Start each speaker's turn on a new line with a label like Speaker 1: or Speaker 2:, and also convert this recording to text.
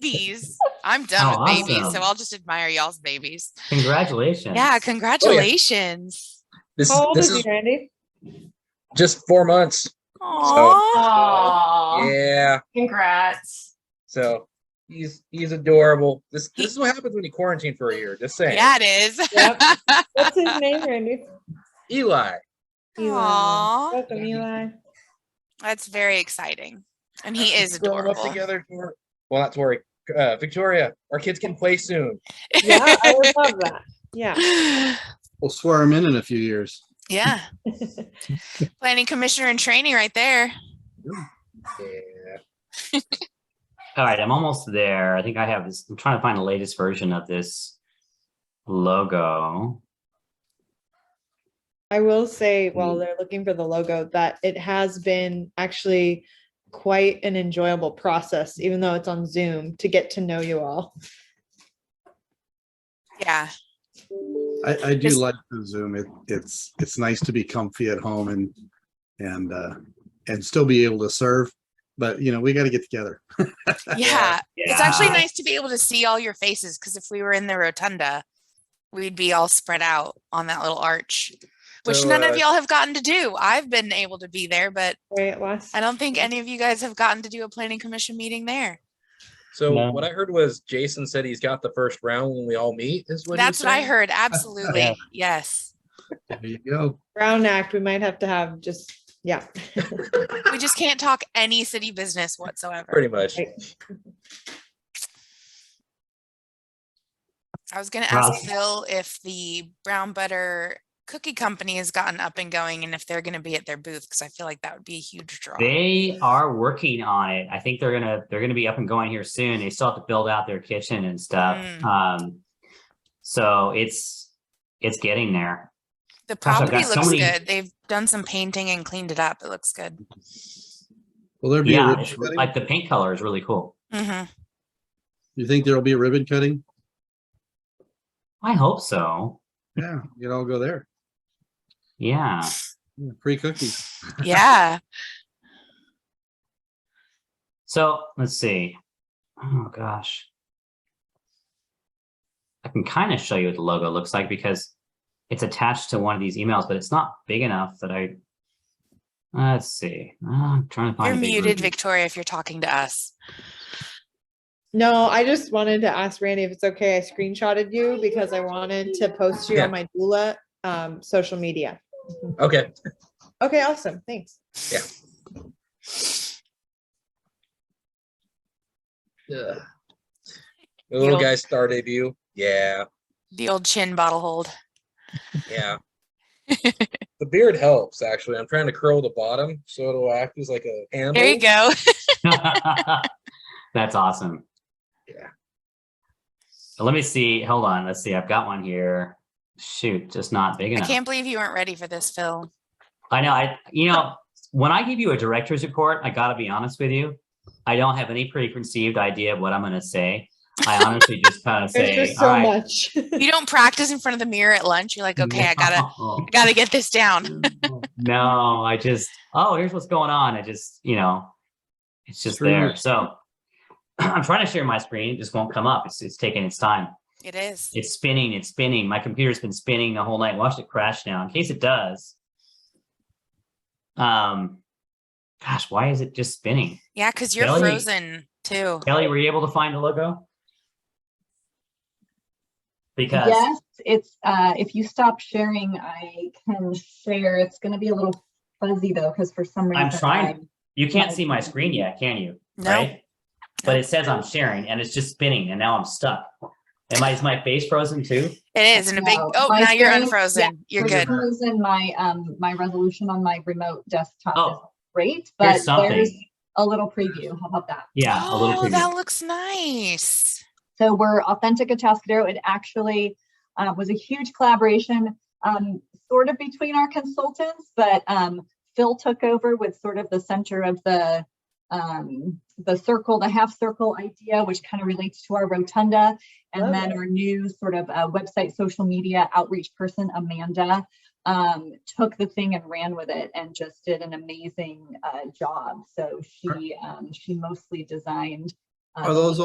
Speaker 1: babies. I'm done
Speaker 2: Oh,
Speaker 1: with babies,
Speaker 2: awesome. Oh,
Speaker 1: so I'll just admire y'all's babies.
Speaker 2: Congratulations.
Speaker 1: Yeah, congratulations.
Speaker 3: This
Speaker 4: How old
Speaker 3: this
Speaker 4: is
Speaker 3: is
Speaker 4: he, Randy?
Speaker 3: just four months.
Speaker 1: Aww.
Speaker 5: Oh,
Speaker 3: Yeah.
Speaker 5: congrats.
Speaker 3: So he's he's adorable. This this is what happens when you quarantine for a year. Just saying.
Speaker 1: Yeah, it is.
Speaker 4: Yep. What's his name, Randy?
Speaker 3: Eli.
Speaker 1: Aww.
Speaker 4: Welcome, Eli.
Speaker 1: That's very exciting. And he is
Speaker 3: Growing up
Speaker 1: adorable.
Speaker 3: together. Tor- Well, not Tori. Uh, Victoria. Our kids can play soon.
Speaker 4: Yeah, I would love that. Yeah.
Speaker 6: We'll swear him in in a few years.
Speaker 1: yeah. Planning commissioner and training right there.
Speaker 3: Yeah.
Speaker 2: All right, I'm almost there. I think I have this. I'm trying to find the latest version of this logo.
Speaker 4: I will say while they're looking for the logo that it has been actually quite an enjoyable process, even though it's on Zoom, to get to know you all.
Speaker 1: Yeah.
Speaker 6: I, I do
Speaker 1: Just-
Speaker 6: like the Zoom. It, it's, it's nice to be comfy at home and, and, uh, and still be able to serve, but you know, we got to get together.
Speaker 1: Yeah. It's actually
Speaker 2: Yeah.
Speaker 1: nice to be able to see all your faces because if we were in the rotunda, we'd be all spread out on that little arch, which
Speaker 3: So,
Speaker 1: none
Speaker 3: uh,
Speaker 1: of y'all have gotten to do. I've been able to be there, but
Speaker 4: Right, last
Speaker 1: I don't think any of you guys have gotten to do a planning commission meeting there.
Speaker 3: So
Speaker 2: No.
Speaker 3: what I heard was Jason said he's got the first round when we all meet. Is what he was
Speaker 1: That's what I
Speaker 3: saying?
Speaker 1: heard. Absolutely.
Speaker 2: Yeah.
Speaker 1: Yes.
Speaker 6: There you go.
Speaker 4: Brown Act, we might have to have just, yeah.
Speaker 1: We just can't talk any city business whatsoever.
Speaker 3: Pretty much.
Speaker 4: Right.
Speaker 1: I was going to
Speaker 2: Wow.
Speaker 1: ask Phil if the brown butter cookie company has gotten up and going and if they're going to be at their booth because I feel like that would be a huge draw.
Speaker 2: They are working on it. I think they're gonna they're gonna be up and going here soon. They still have to build out their kitchen and stuff.
Speaker 1: Mm.
Speaker 2: Um, so it's it's getting there.
Speaker 1: The
Speaker 2: Gosh, I've
Speaker 1: property
Speaker 2: got so
Speaker 1: looks
Speaker 2: many-
Speaker 1: good. They've done some painting and cleaned it up. It looks good.
Speaker 6: Will there be, a
Speaker 2: Yeah,
Speaker 6: ribbon
Speaker 2: it's re-
Speaker 6: cutting?
Speaker 2: like the paint color is really cool.
Speaker 1: Mhm.
Speaker 6: you think there'll be a ribbon cutting?
Speaker 2: I hope so.
Speaker 6: Yeah, you all go there.
Speaker 2: Yeah.
Speaker 6: Yeah, Free cookies.
Speaker 1: Yeah.
Speaker 2: So let's see. Oh gosh. I can kind of show you what the logo looks like because it's attached to one of these emails, but it's not big enough that I. Let's see. Uh, I'm trying to
Speaker 1: You're
Speaker 2: find. a big
Speaker 1: muted,
Speaker 2: version.
Speaker 1: Victoria, if you're talking to us.
Speaker 4: No, I just wanted to ask Randy if it's okay. I screenshotted you because I wanted to post you
Speaker 3: Yeah.
Speaker 4: on my doula um, social media.
Speaker 3: Okay.
Speaker 4: Okay, awesome. Thanks.
Speaker 3: Ugh. The little
Speaker 1: You'll-
Speaker 3: guy's star debut. Yeah.
Speaker 1: The old chin bottle hold.
Speaker 3: Yeah. the beard helps actually. I'm trying to curl the bottom so it'll act as like a handle.
Speaker 1: There you go.
Speaker 2: That's awesome.
Speaker 3: Yeah.
Speaker 2: So let me see. Hold on. Let's see. I've got one here. Shoot, just not big
Speaker 1: I
Speaker 2: enough.
Speaker 1: can't believe you weren't ready for this, Phil.
Speaker 2: I know. I you know when I give you a director's report, I gotta be honest with you. I don't have any preconceived idea of what I'm gonna say. I honestly just kind of
Speaker 4: There's
Speaker 2: say,
Speaker 4: just
Speaker 2: "All
Speaker 4: so
Speaker 2: right."
Speaker 4: much.
Speaker 1: You don't practice in front of the mirror at lunch. You're like, okay, I gotta I gotta get this down.
Speaker 2: no, I just oh, here's what's going on. I just you know, it's just
Speaker 6: True.
Speaker 2: there. So I'm trying to share my screen. It just won't come up. It's it's taking its time.
Speaker 1: It is.
Speaker 2: It's spinning. It's spinning. My computer's been spinning the whole night. Watch it crash now. In case it does. Um, gosh, why is it just spinning?
Speaker 1: Yeah, because you're
Speaker 2: Kelly-
Speaker 1: frozen too.
Speaker 2: Kelly, were you able to find the logo? Because
Speaker 7: Yes, it's, uh, if you stop sharing, I can share. It's gonna be a little fuzzy though, because for some reason.
Speaker 2: I'm trying.
Speaker 7: I'm-
Speaker 2: you can't see my screen yet, can you?
Speaker 1: No.
Speaker 2: Right? But it says I'm sharing and it's just spinning and now I'm stuck. Am I, is my face frozen too?
Speaker 1: It is in a big
Speaker 7: No,
Speaker 1: oh
Speaker 7: my
Speaker 1: now you're
Speaker 7: screen-
Speaker 1: unfrozen. You're
Speaker 7: For
Speaker 1: good.
Speaker 7: some reason, my, um, my resolution on my remote desktop is
Speaker 2: Oh.
Speaker 7: great, but
Speaker 2: Here's something.
Speaker 7: there's a little preview. How about that?
Speaker 2: Yeah, a little
Speaker 1: Oh,
Speaker 2: preview.
Speaker 1: that looks nice.
Speaker 7: So we're Authentic Atascadero. It actually uh, was a huge collaboration, um, sort of between our consultants, but um, Phil took over with sort of the center of the um, the circle, the half circle idea, which kind of relates to our rotunda, and
Speaker 4: Love
Speaker 7: then our new sort of uh, website, social media outreach person, Amanda. Um, took the thing and ran with it and just did an amazing uh, job. So she um, she mostly designed. uh,
Speaker 6: Are those